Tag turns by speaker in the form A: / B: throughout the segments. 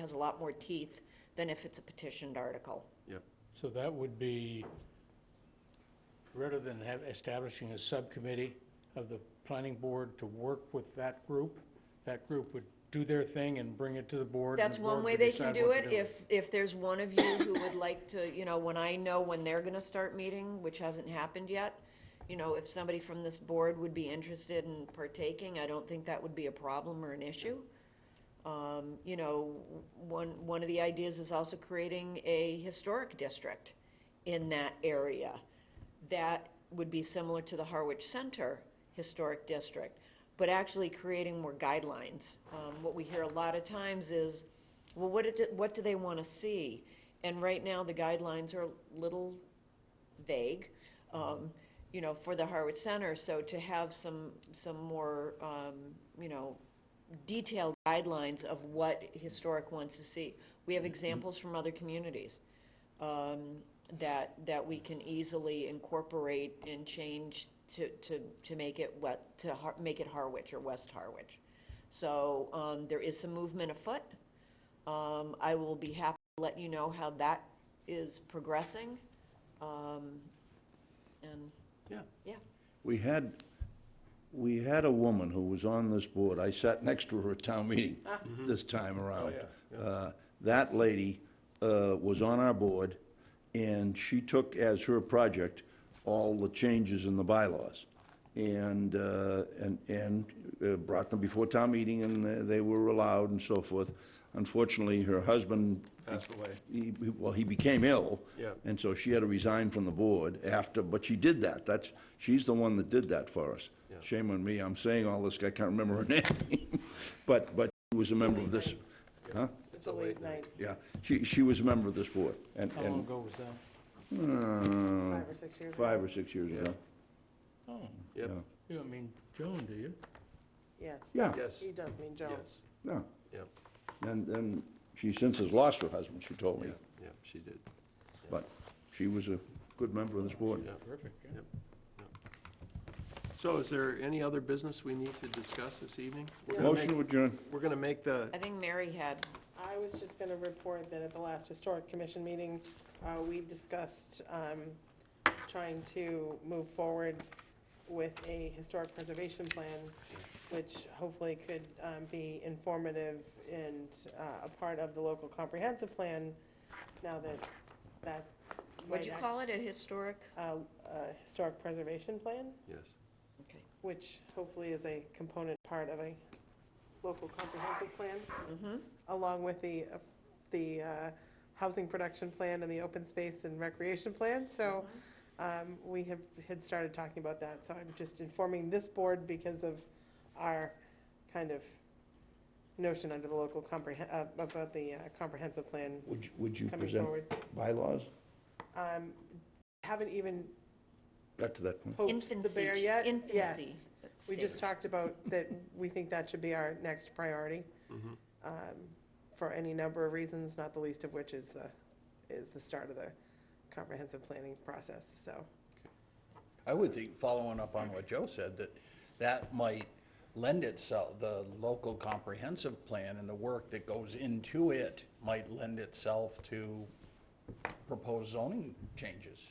A: has a lot more teeth than if it's a petitioned article.
B: Yep.
C: So that would be, rather than have, establishing a subcommittee of the planning board to work with that group, that group would do their thing and bring it to the board. and
A: That's
C: the
A: one
C: board
A: way
C: would
A: they can
C: decide
A: do
C: what to
A: it. If, if there's one of you who would like to, you know, when I know when they're gonna start meeting, which hasn't happened yet, you know, if somebody from this board would be interested in partaking, I don't think that would be a problem or an issue. Um, you know, one, one of the ideas is also creating a historic district in that area. That would be similar to the Harwich Center Historic District, but actually creating more guidelines. Um, what we hear a lot of times is, well, what did, what do they want to see? And right now, the guidelines are little vague, um, you know, for the Harwich Center, so to have some, some more, um, you know, detailed guidelines of what historic wants to see. We have examples from other communities, um, that, that we can easily incorporate and change to, to, to make it what, to Har- make it Harwich or West Harwich. So, um, there is some movement afoot. Um, I will be happy to let you know how that is progressing. Um, and,
B: Yeah.
A: yeah,
D: We had, we had a woman who was on this board, I sat next to her at town meeting
B: Mm-hmm.
D: this time
B: Oh,
D: around. Uh, That lady uh, was on our board, and she took as her project all the changes in the bylaws, and, uh, and, and uh, brought them before town meeting, and they- they were allowed and so forth. Unfortunately, her husband.
B: Passed away.
D: He- he- Well, he became ill.
B: Yeah.
D: And so she had to resign from the board after, but she did that. That's, she's the one that did that for us. Shame on me, I'm saying all this, I can't remember her name. But, but she was a member of this, huh?
E: It's a late night,
D: Yeah, she, she was a member of this board. And,
C: do. How long
D: and,
C: ago was that?
D: uh,
E: five or six years ago.
D: five or six years ago.
C: Oh,
B: Yep,
D: Yeah.
C: you don't mean Joan, do you?
E: Yes.
D: Yeah,
B: yes,
E: He does mean Joan.
B: yes,
D: yeah.
B: yep,
D: And, and she since has lost her husband, she told me.
B: yeah, yep, she did,
D: But she was a good member of this board.
B: yep,
C: Terrific, yeah.
B: yep, yep. So is there any other business we need to discuss this evening? We're gonna
D: Motion
B: make-
D: to adjourn.
B: We're gonna make the,
A: I think Mary had
E: I was just gonna report that at the last historic commission meeting, uh, we discussed, um, trying to move forward with a historic preservation plan, which hopefully could, um, be informative and, uh, a part of the local comprehensive plan, now that that.
A: Would you call it a historic?
E: Uh, uh, historic preservation plan?
B: yes,
A: Okay.
E: which hopefully is a component part of a local comprehensive plan, along with the, uh, the uh, housing production plan and the open space and recreation plan. So um, we have, had started talking about that, so I'm just informing this board because of our kind of notion under the local comprehen, uh, about the uh, comprehensive plan
D: Would, you- would you
E: coming
D: present
E: forward.
D: bylaws?
E: Um, Haven't even
D: Got to that point.
E: poked the
A: Infancy,
E: bear yet.
A: infancy.
E: Yes. We just
A: stage.
E: talked about that we think that should be our next priority,
B: Mhm.
E: um, for any number of reasons, not the least of which is the, is the start of the comprehensive planning process, so.
F: I would think, following up on what Joe said, that that might lend itself, the local comprehensive plan and the work that goes into it might lend itself to proposed zoning changes.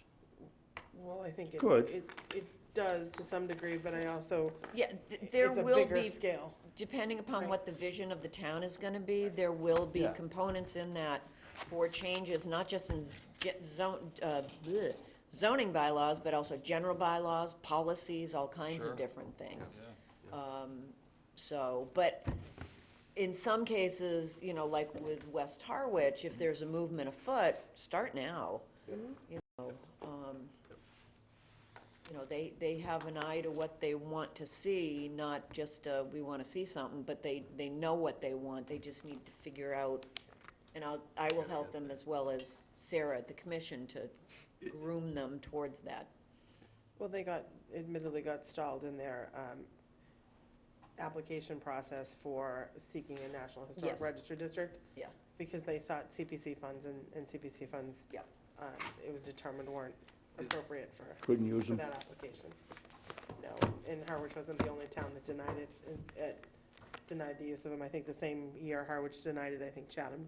E: Well, I think it,
D: Good.
E: it, it does to some degree, but I also,
A: Yeah, th- there
E: it's a
A: will
E: bigger
A: be,
E: scale.
A: depending upon
E: Right.
A: what the vision of the town is gonna be, there will be
F: Yeah.
A: components in that for changes, not just in ge- zone, uh, bleh, zoning bylaws, but also general bylaws, policies, all kinds of
F: Sure.
A: different things. Um, so, but in some cases, you know, like with West Harwich, if there's a movement afoot, start now. You know, um, you know, they, they have an eye to what they want to see, not just, uh, we want to see something, but they, they know what they want, they just need to figure out, and I'll, I will help them as well as Sarah at the commission to groom them towards that.
E: Well, they got, admittedly got stalled in their, um, application process for seeking a National Historic
A: Yes.
E: Register district.
A: Yeah.
E: Because they sought CPC funds and, and CPC funds.
A: Yeah.
E: um, It was determined weren't appropriate for,
D: Couldn't use
E: for
D: them.
E: that application. No, and Harwich wasn't the only town that uh, denied it in- at denied the use of them. I think the same year Harwich denied it, I think Chatham